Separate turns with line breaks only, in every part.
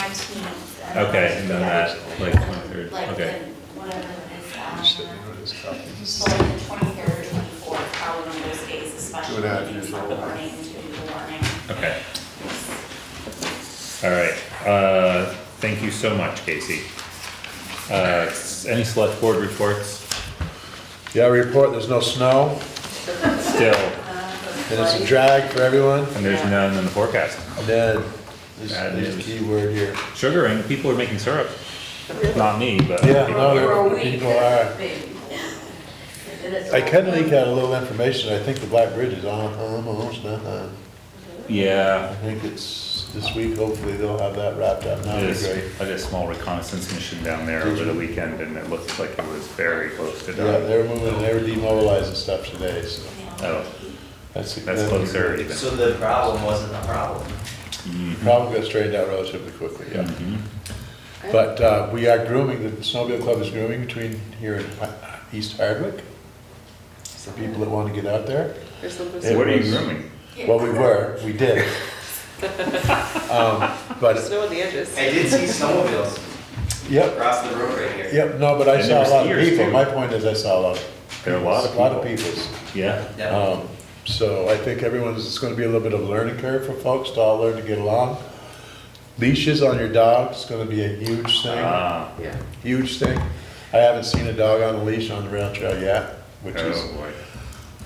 nineteenth.
Okay, and then that, like, twenty-third,
Like,
okay.
the- whatever it is,
Just didn't
um,
know this copy.
so like the twenty-third, twenty-fourth, probably one of those days,
Two
especially
and a half
if
years
it's like the
old.
morning to the morning.
Okay. All right, uh, thank you so much, Casey. Uh, s- any select board reports?
Yeah, report, there's no snow,
Still,
and it's a drag for everyone,
and there's none in the forecast.
and then, this
Bad
is the
news.
key word here.
Sugaring, people are making syrup. Not me, but.
Yeah,
people
no,
are.
there- people are. I kinda leak out a little information, I think the Black Bridge is on, almost, not on. I
Yeah,
think it's this week, hopefully they'll have that wrapped up,
I
now would be
did,
great.
I did a small reconnaissance mission down there
Did
over
you?
the weekend, and it looked like it was very close to
Yeah,
done.
they were moving, they were demobilizing stuff today, so
Oh,
that's.
that's closer even.
So the problem wasn't a problem.
Mm-hmm.
Problem got straightened out relatively quickly, yeah.
Mm-hmm.
But uh, we are grooming, the Snowmobile Club is grooming between here and Ha- East Hardwick, for people that want to get out there.
There's something
It
What are you
was-
grooming?
Well, we were, we did. Um,
There's
But,
snow on the edges.
I did see snowmobiles
yep,
across the road right here.
yep, no, but I
And there
saw a
were
lot of
skiers,
people.
too.
My point is I saw a lot of.
There are a lot of
A lot of
people.
peoples.
Yeah,
Yeah.
Um, So I think everyone's, it's gonna be a little bit of a learning curve for folks to all learn to get along. Leashes on your dog is gonna be a huge thing,
ah,
Yeah.
huge thing. I haven't seen a dog on a leash on the rail trail yet, which is,
oh boy.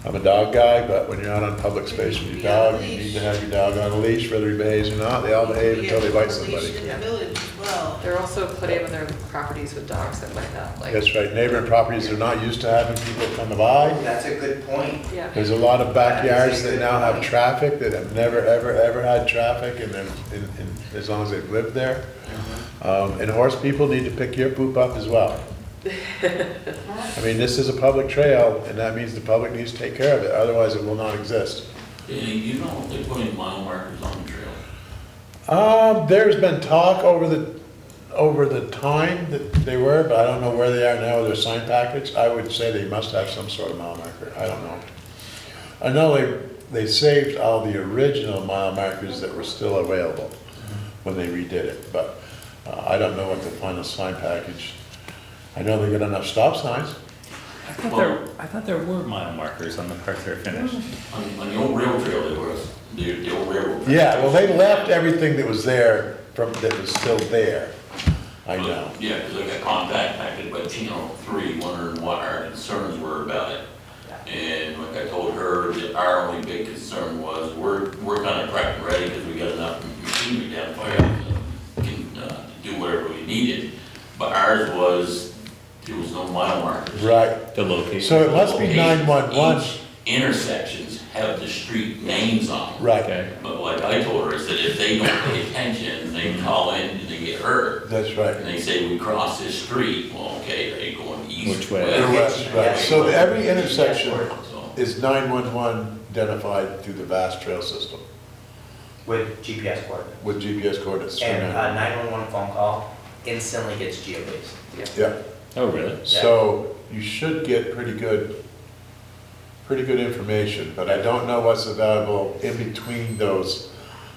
I'm a dog guy, but when you're out on public space with your dog, you need to have your dog on a leash, whether he behaves or not, they all behave until they bite somebody.
in the village as well.
There are also plenty of other properties with dogs that might not like.
That's right, neighboring properties are not used to having people come by.
That's a good point.
Yeah.
There's a lot of backyards that now have traffic, that have never, ever, ever had traffic, and then, and, and as long as they've lived there. Um, and horse people need to pick your poop up as well. I mean, this is a public trail, and that means the public needs to take care of it, otherwise it will not exist.
Yeah, you don't, they put any mile markers on the trail.
Um, there's been talk over the, over the time that they were, but I don't know where they are now with their sign package. I would say they must have some sort of mile marker, I don't know. I know they, they saved all the original mile markers that were still available when they redid it, but uh, I don't know what the final sign package. I know they got enough stop signs.
I thought there, I thought there were mile markers on the parts that are finished.
On, on the old rail trail, they were, the, the old railroad. track.
Yeah, well, they left everything that was there from, that was still there. I
But,
know.
Yeah, because I got contacted by Tino three, wondering what our concerns were about it. And like I told her, that our only big concern was, we're, we're kind of prepped and ready because we got enough machinery down fire to can, uh, do whatever we needed. But ours was, there was no mile markers.
Right,
The location.
So it must be nine-one-one,
Each Intersections have the street names on them.
right.
Okay,
But like I told her, is that if they don't pay attention, they call in and they get hurt.
That's right.
And they say, we crossed this street, well, okay, are you going east?
Which way?
There
west?
was, right, so
Yeah.
every intersection
So,
is nine-one-one identified through the vast trail system
With GPS coordinates.
with GPS coordinates. three
And
uh, nine-
a nine-one-one phone call instantly gets geobased.
Yeah,
oh, really?
so you should get pretty good, pretty good information, but I don't know what's available in between those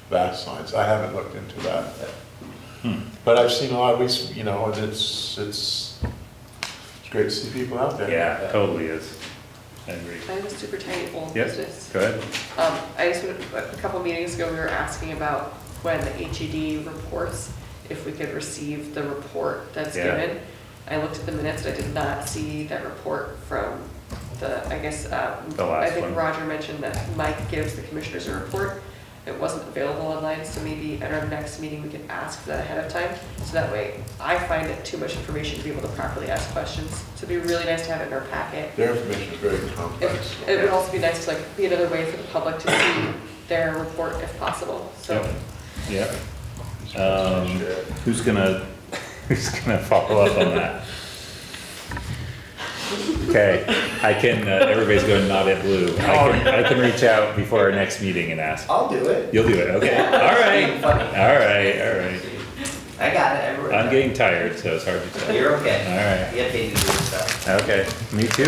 vast lines. I haven't looked into that.
Hmm.
But I've seen a lot, we, s- you know, and it's, it's, it's great to see people out there.
Yeah, totally is. I agree.
I have a super tiny old
Yes,
business.
go ahead.
Um, I just, wanna- a couple meetings ago, we were asking about when the HED reports, if we could receive the report that's
Yeah.
given. I looked at the minutes, and I did not see that report from the, I guess, um,
The last
I think
one.
Roger mentioned that Mike gives the commissioners a report. It wasn't available online, so maybe at our next meeting, we could ask for that ahead of time. So that way, I find it too much information to be able to properly ask questions. So it'd be really nice to have it in our packet.
Their information is very complex.
It it would also be nice to like be another way for the public to see their report if possible, so.
Yep. Yep. Um, who's gonna, who's gonna follow up on that? Okay, I can, uh, everybody's going not at blue. I can, I can reach out before our next meeting and ask.
I'll do it.
You'll do it, okay? All right,
Being
all
funny.
right, all right.
I got it, everywhere.
I'm getting tired, so it's hard to tell.
You're okay.
All right.
You have to do your stuff.
Okay, me too.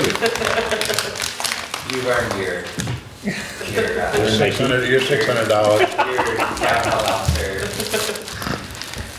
You've earned your, your, uh,
Six hundred, you're six hundred dollars.
your, your,